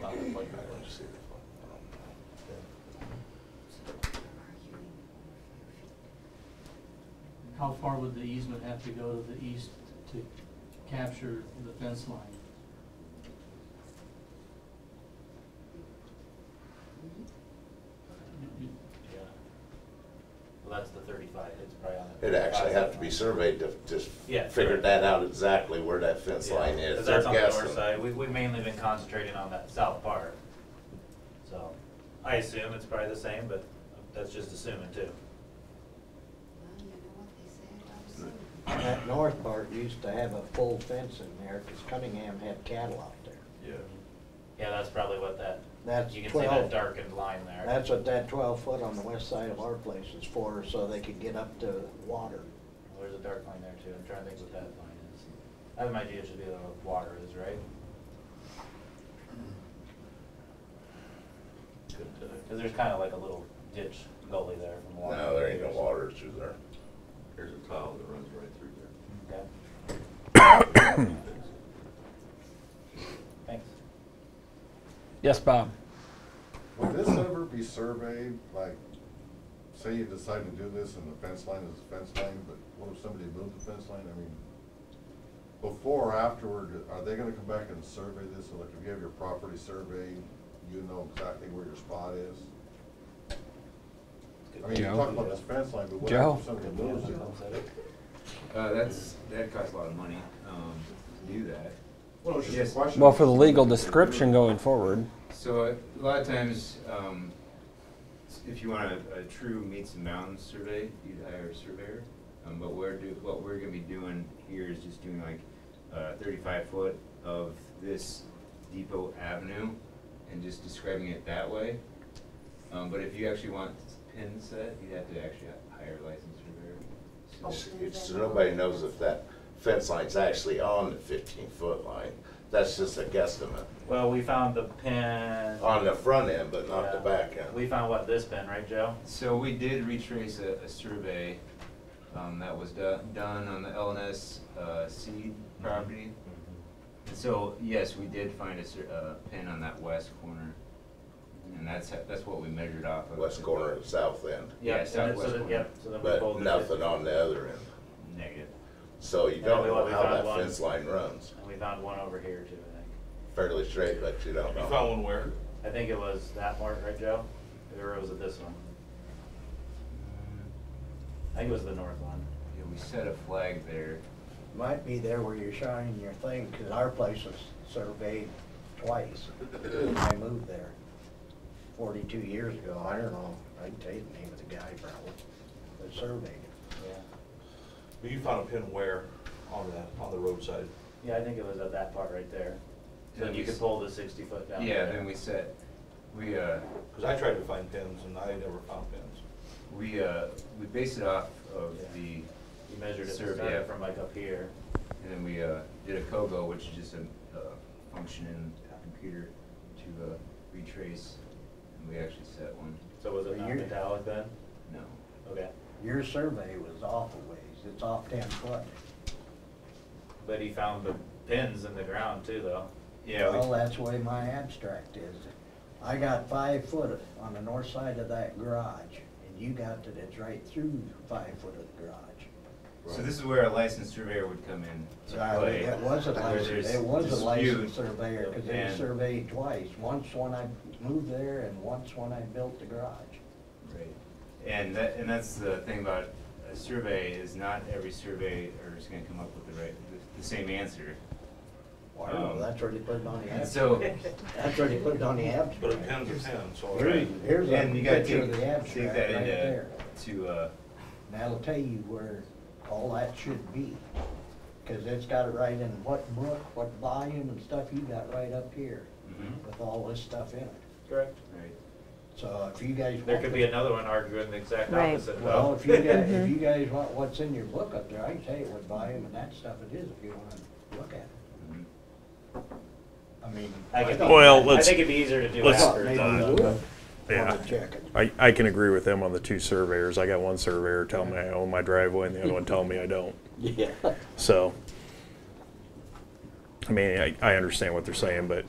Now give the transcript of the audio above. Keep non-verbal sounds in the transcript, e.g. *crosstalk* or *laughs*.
might not let you see this one. I don't know. How far would the easement have to go to the east to capture the fence line? Yeah. Well, that's the thirty-five, it's probably on the. It'd actually 35 have to be surveyed to just Yeah, figure sure. that out exactly where that fence Yeah, line is. 'cause They're that's on the north guessing. side, we, we've mainly been concentrating on that south part. So, I assume it's probably the same, but that's just assuming too. That north part used to have a full fence in there, because Cunningham had cattle out there. Yeah. Yeah, that's probably what that, That's you can see that 12. darkened line there. That's what that twelve foot on the west side of our place is for, so they could get up to water. Well, There's a dark line there too, I'm trying to think what that line is. I have an idea it should be where the water is, right? Cause there's kinda like a little ditch gully there from water. No, there ain't no water through there. There's a tile that runs right through there. Okay, thanks. Yes, Bob. Would this ever be surveyed, like, say you decide to do this and the fence line is the fence line, but what if somebody moved the fence line? I mean, before or afterward, are they gonna come back and survey this? So like, if you have your property surveyed, you know exactly where your spot is? I mean, you Joe? talk about this fence line, but what Joe? if somebody moves it? Uh, that's, that costs a lot of money, um, to do that. Well, it's Yes. just a question. Well, for the legal description going forward, So uh, a lot of times, um, s- if you want a, a true meets and mounds survey, you'd hire a surveyor. Um, but we're do, what we're gonna be doing here is just doing like, uh, thirty-five foot of this Depot Avenue and just describing it that way. Um, but if you actually want pin set, you'd have to actually h- hire a licensed surveyor. So- It's- It's, nobody knows if that fence line's actually on the fifteen foot line. That's just a guesstimate. Well, we found the pin. On the front end, but not the Yeah. back end. We found what, this pin, right, Joe? So we did retrace a, a survey, um, that was do- done on the LNS, uh, seed Mm-hmm. property. And so, yes, we did find a cer- uh, pin on that west corner, and that's, ha- that's what we measured off of. West corner and south end, Yeah, Yep, and then- so southwest then- corner. Yep, so then we but pulled. nothing on the other end. Negative. So you And then don't we know went- we how found that one. fence line runs. And we found one over here too, I think. Fairly straight, but you don't You know. found one where? I think it was that mark, right, Joe? Or was it this one? I think it was the north one. Yeah, we set a flag there. Might be there where you're shining your thing, because our place was surveyed twice. I moved there forty-two years ago. I don't know, I can tell you the name of the guy probably that surveyed it. Yeah. But You found a pin where on that, on the roadside? Yeah, I think it was at that part right there. So Yeah, you we could s- pull the sixty foot down. Yeah, there. then we set, we, uh, Because I tried to find pins and I never found pins. we, uh, we based it off of Yeah. the You measured it, Survey. started from like up here. And then we uh, did a COGO, which is just a uh, function in a computer to uh, retrace, and we actually set one. So was it not You're- metallic then? No. Okay. Your survey was off a ways. It's off ten foot. But he found the pins in the ground too, though. Yeah, Well, we- that's the way my abstract is. I got five foot on the north side of that garage, and you got that it's right through five foot of the garage. so this is where a licensed surveyor would come in So to I- play. It was a where license, there's it was a licensed dispute. surveyor, because they and- surveyed twice, once when I moved there and once when I built the garage. Right. And that, and that's the thing about a survey, is not every surveyor is gonna come up with the right, the- the same answer. Wow, Um, that's where they put it on the And abstract, so, *laughs* that's where they put it on the But a abstract. pin's a pin, so. Here's- Here's and you a gotta picture take, of the take abstract that right into, there. to, uh, That'll tell you where all that should be, because it's got it right in what book, what volume and stuff you got right up here mhm, with all this stuff in it. Correct. right. So if you guys. There want could to- be another one arguing the exact Right. opposite. though. Well, if you guys, if you guys want what's in your book up there, I can tell you what volume and that stuff it is if you wanna look at it. mhm. I mean. *laughs* I could be- Well, I let's- think it'd be easier to do let's- after. Maybe though. you would Yeah. wanna check it. I, I can agree with them on the two surveyors. I got one surveyor telling me I own my driveway and the other one telling me I don't. Yeah. So, I mean, I, I understand what they're saying, but